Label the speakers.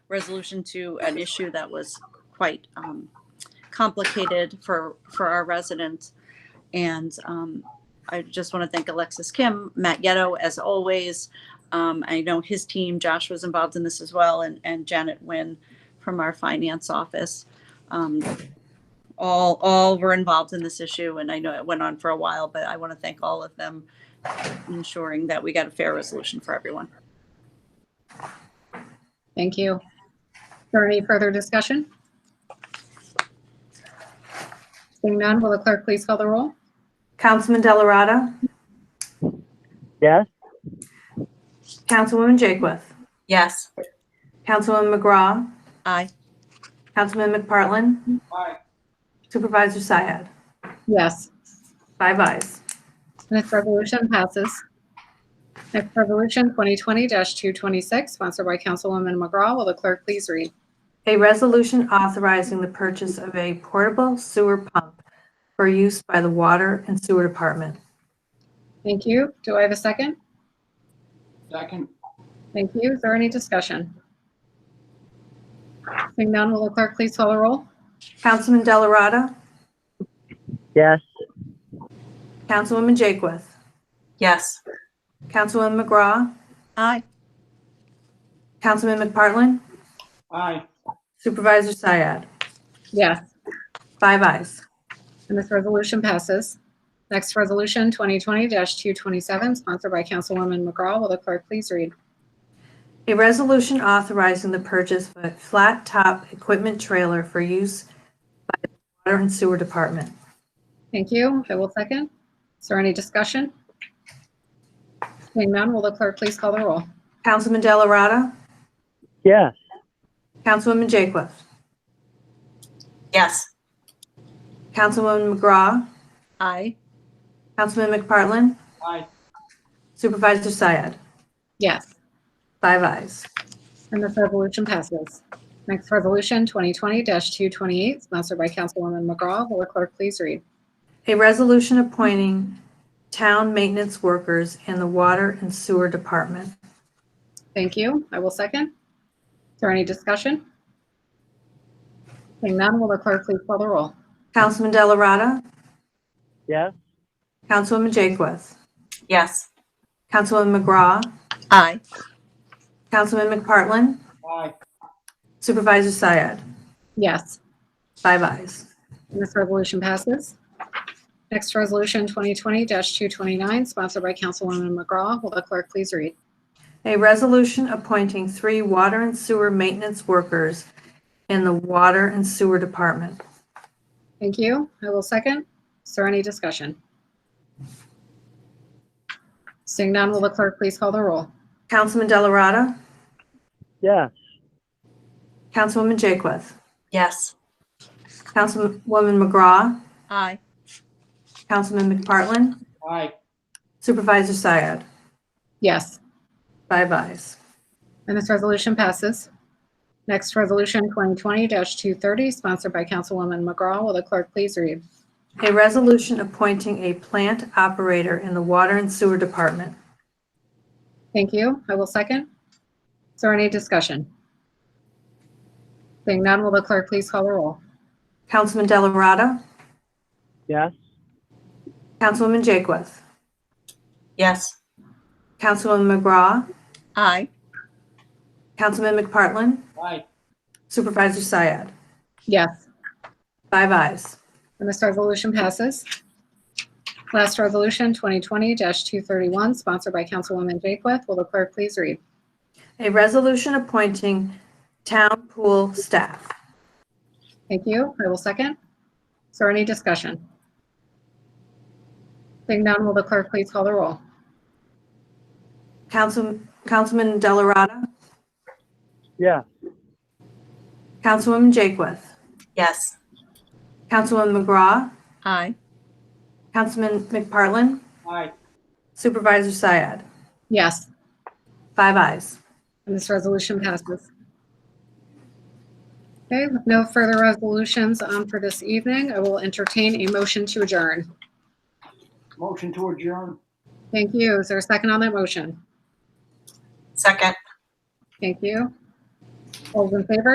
Speaker 1: resolution to an issue that was quite um, complicated for, for our residents. And um, I just want to thank Alexis Kim, Matt Ghetto, as always. Um, I know his team, Josh was involved in this as well, and, and Janet Nguyen from our finance office. Um, all, all were involved in this issue, and I know it went on for a while, but I want to thank all of them ensuring that we got a fair resolution for everyone.
Speaker 2: Thank you. For any further discussion? Seeing none, will the clerk please call the roll?
Speaker 3: Councilman Delarada.
Speaker 4: yes,
Speaker 3: Councilwoman Jakewith.
Speaker 5: yes,
Speaker 3: Councilwoman McGraw.
Speaker 1: Aye.
Speaker 3: Councilman McPartlin. Supervisor Syed.
Speaker 2: Yes,
Speaker 3: Five ayes.
Speaker 2: this resolution passes. Next resolution, 2020-226, sponsored by Councilwoman McGraw. Will the clerk please read?
Speaker 3: A resolution authorizing the purchase of a portable sewer pump for use by the Water and Sewer Department.
Speaker 2: Thank you. Do I have a second?
Speaker 6: Second,
Speaker 2: Thank you. Is there any discussion? Seeing none, will the clerk please call the roll?
Speaker 3: Councilman Delarada.
Speaker 4: yes,
Speaker 3: Councilwoman Jakewith.
Speaker 5: yes,
Speaker 3: Councilwoman McGraw.
Speaker 1: Aye.
Speaker 3: Councilman McPartlin.
Speaker 6: aye,
Speaker 3: Supervisor Syed.
Speaker 2: Yes.
Speaker 3: Five ayes.
Speaker 2: And this resolution passes. Next resolution, 2020-227, sponsored by Councilwoman McGraw. Will the clerk please read?
Speaker 3: A resolution authorizing the purchase of a flat-top equipment trailer for use by the Water and Sewer Department.
Speaker 2: Thank you. I will second. Is there any discussion? Seeing none, will the clerk please call the roll?
Speaker 3: Councilman Delarada.
Speaker 4: yes,
Speaker 3: Councilwoman Jakewith.
Speaker 5: yes,
Speaker 3: Councilwoman McGraw.
Speaker 1: Aye.
Speaker 3: Councilman McPartlin.
Speaker 6: aye,
Speaker 3: Supervisor Syed.
Speaker 2: Yes.
Speaker 3: Five ayes.
Speaker 2: And this resolution passes. Next resolution, 2020-228, sponsored by Councilwoman McGraw. Will the clerk please read?
Speaker 3: A resolution appointing town maintenance workers in the Water and Sewer Department.
Speaker 2: Thank you. I will second. Is there any discussion? Seeing none, will the clerk please call the roll?
Speaker 3: Councilman Delarada.
Speaker 4: yes,
Speaker 3: Councilwoman Jakewith.
Speaker 5: yes,
Speaker 3: Councilwoman McGraw.
Speaker 1: Aye.
Speaker 3: Councilman McPartlin.
Speaker 6: aye,
Speaker 3: Supervisor Syed.
Speaker 2: Yes.
Speaker 3: Five ayes.
Speaker 2: And this resolution passes. Next resolution, 2020-229, sponsored by Councilwoman McGraw. Will the clerk please read?
Speaker 3: A resolution appointing three water and sewer maintenance workers in the Water and Sewer Department.
Speaker 2: Thank you. I will second. Is there any discussion? Seeing none, will the clerk please call the roll?
Speaker 3: Councilman Delarada.
Speaker 4: yes,
Speaker 3: Councilwoman Jakewith.
Speaker 5: yes,
Speaker 3: Councilwoman McGraw.
Speaker 1: Aye.
Speaker 3: Councilman McPartlin.
Speaker 6: aye,
Speaker 3: Supervisor Syed.
Speaker 2: Yes.
Speaker 3: Five ayes.
Speaker 2: And this resolution passes. Next resolution, 2020-230, sponsored by Councilwoman McGraw. Will the clerk please read?
Speaker 3: A resolution appointing a plant operator in the Water and Sewer Department.
Speaker 2: Thank you. I will second. Is there any discussion? Seeing none, will the clerk please call the roll?
Speaker 3: Councilman Delarada.
Speaker 4: yes,
Speaker 3: Councilwoman Jakewith.
Speaker 5: yes,
Speaker 3: Councilwoman McGraw.
Speaker 1: Aye.
Speaker 3: Councilman McPartlin.
Speaker 6: aye,
Speaker 3: Supervisor Syed.
Speaker 2: Yes.
Speaker 3: Five ayes.
Speaker 2: And this resolution passes. Last resolution, 2020-231, sponsored by Councilwoman Jakewith. Will the clerk please read?
Speaker 3: A resolution appointing town pool staff.
Speaker 2: Thank you. I will second. Is there any discussion? Seeing none, will the clerk please call the roll?
Speaker 3: Council, Councilman Delarada,
Speaker 4: yes,
Speaker 3: Councilwoman Jakewith,
Speaker 5: yes,
Speaker 3: Councilwoman McGraw,
Speaker 1: Aye.
Speaker 3: Councilman McPartlin,
Speaker 6: aye,
Speaker 3: Supervisor Syed.
Speaker 2: Yes.
Speaker 3: Five ayes.
Speaker 2: And this resolution passes. Okay, with no further resolutions um, for this evening, I will entertain a motion to adjourn.
Speaker 6: motion to adjourn,
Speaker 2: Thank you. Is there a second on that motion?
Speaker 5: second,
Speaker 2: Thank you. All those in favor?